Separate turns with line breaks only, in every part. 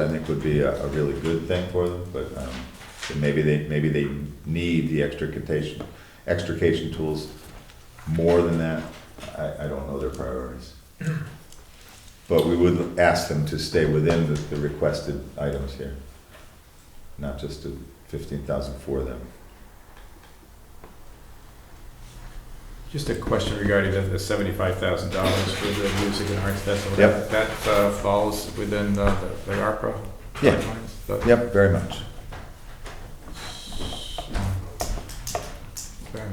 I think would be a, a really good thing for them, but, um, and maybe they, maybe they need the extrication, extrication tools more than that. I, I don't know their priorities. But we would ask them to stay within the, the requested items here, not just to fifteen thousand for them.
Just a question regarding the- the seventy-five thousand dollars for the music and arts festival.
Yep.
That uh, falls within the the ARPA
Yeah.
guidelines? but-
Yep, very much.
Okay.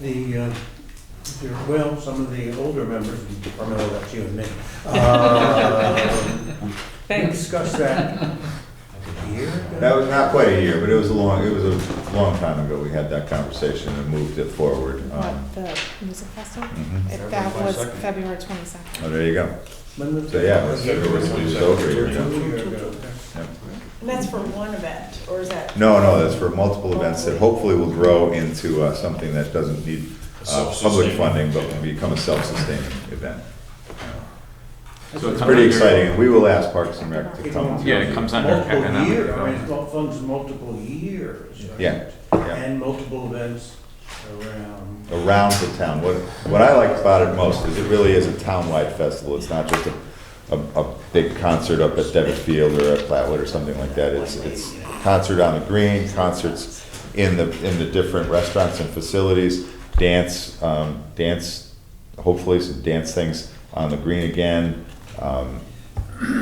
The, uh, there- well, some of the older members, Carmelo, that's you and me, uh,
Thanks.
discussed that a year ago.
That was not quite a year, but it was a long, it was a long time ago. We had that conversation and moved it forward. Um,
What, the music festival?
mhm.
If that was February twenty-second.
Oh, there you go.
When was
So, yeah,
it?
it was- it was- it was over a year ago.
Two year ago.
And that's for one event, or is that?
No, no, that's for multiple events that hopefully will grow into uh, something that doesn't need uh, public
Self-sustaining.
funding, but will become a self-sustaining event.
So
It's pretty exciting, and we will ask Parks and Rec to come.
Yeah, it comes under
Multiple
economic
year, I mean,
development.
it funds multiple years. right?
Yeah, yeah.
And multiple events around.
around the town. What, what I like about it most is it really is a townwide festival. It's not just a, a, a big concert up at Devitt Field or at Flatwood or something like that. It's, it's concert on the green, concerts in the, in the different restaurants and facilities, dance, um, dance, hopefully some dance things on the green again. Um,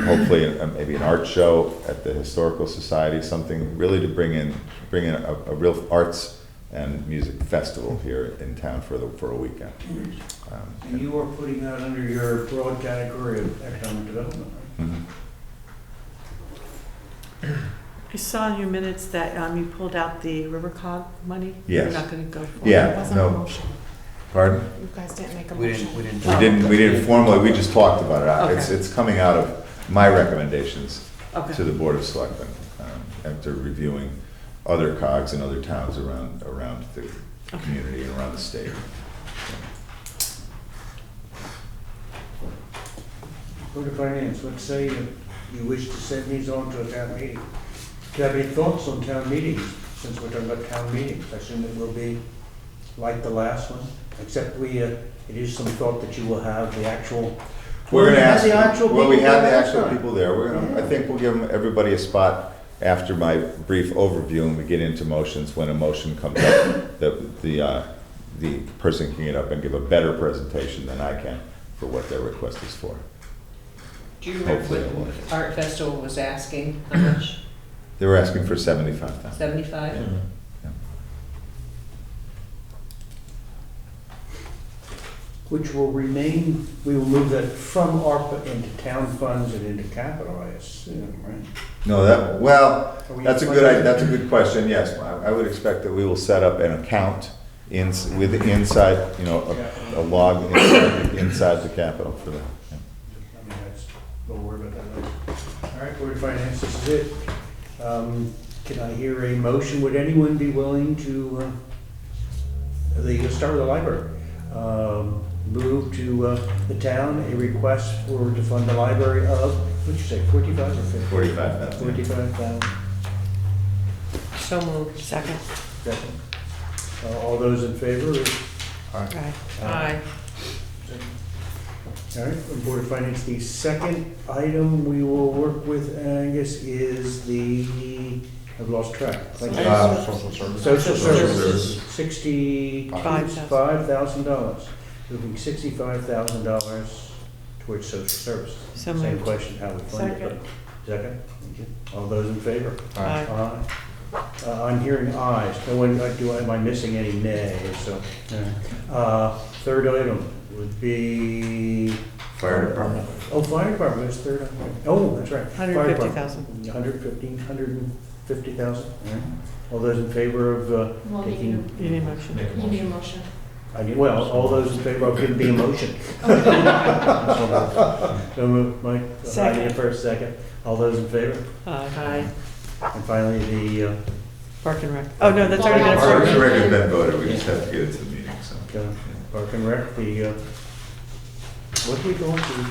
hopefully, uh, maybe an art show at the Historical Society, something really to bring in, bring in a, a real arts and music festival here in town for the, for a weekend. Um,
And you are putting that under your broad category of economic development, right?
mhm.
I saw in your minutes that um, you pulled out the River Cog money.
Yes.
You're not going to go for it.
Yeah,
It wasn't a
no.
motion.
Pardon?
You guys didn't make a
We didn't-
motion.
we didn't-
We didn't, we didn't formally, we just talked about it. Uh, It's,
Okay.
it's coming out of my recommendations to
Okay.
the Board of Selectmen um, after reviewing other cogs in other towns around, around the community and around the state.
Board of Finance, let's say you you wish to send these on to a town meeting. Do you have any thoughts on town meetings, since we're talking about town meetings? I assume it will be like the last one, except we, uh, it is some thought that you will have the actual.
We're gonna
We had
ask,
the actual
well, we
people
had the
there
actual
last time.
people there, we're gonna, I
Yeah.
think we'll give 'em- everybody a spot after my brief overview and we get into motions, when a motion comes up, the, the, uh, the person can get up and give a better presentation than I can for what their request is for.
Do you
Hopefully
remember
it will.
what Art Festival was asking, how much,
They were asking for seventy-five thousand.
seventy-five?
Which will remain, we will move that from ARPA into town funds and into capital, I assume, right?
No, that, well,
Are we-
that's a good, i- that's a good question, yes. I I would expect that we will set up an account in, with, inside, you know, a- a log inside, inside the capital for that. yeah.
I mean, that's, don't worry about that. later. All right, Board of Finance, this is it. Um, Can I hear a motion? Would anyone be willing to, uh, the, let's start with the library. Um, Move to uh, the town a request for, to fund the library of, what'd you say, forty-five or fifty?
45,000.
Forty-five thousand.
So moved. Second.
Second. Uh, All those in favor?
Aye.
Aye.
Aye.
All right, from Board of Finance, the second item we will work with Angus is the, I've lost track. Thank you.
Uh,
Social services,
services.
Five thousand.
sixty-five thousand dollars, moving sixty-five thousand dollars towards social services.
So
Same
moved.
question, how we fund it.
Second.
but- Second, thank you. All those in favor?
Aye.
Aye. Uh, I'm hearing ayes, no one, uh, do, I- am I missing any nays, so. Uh, third item would be.
Fire department.
Oh, fire department is third, item. oh, that's right. Fire
Hundred fifty
department.
thousand.
Hundred fifteen, hundred and fifty thousand, all right. All those in favor of uh,
Well, you
taking,
need
You need a motion.
a- you need a motion.
I mean, well, all those in favor of giving the motion. So moved, Mike, uh, I need a
Second.
first, second. All those in favor?
Uh,
Aye.
And finally, the, uh,
Park and Rec. Oh, no, that's already been
Parks and
approved.
Rec has been voted, we just have to get it to the meeting, so.
uh, Park and Rec, the, uh, what do we go to,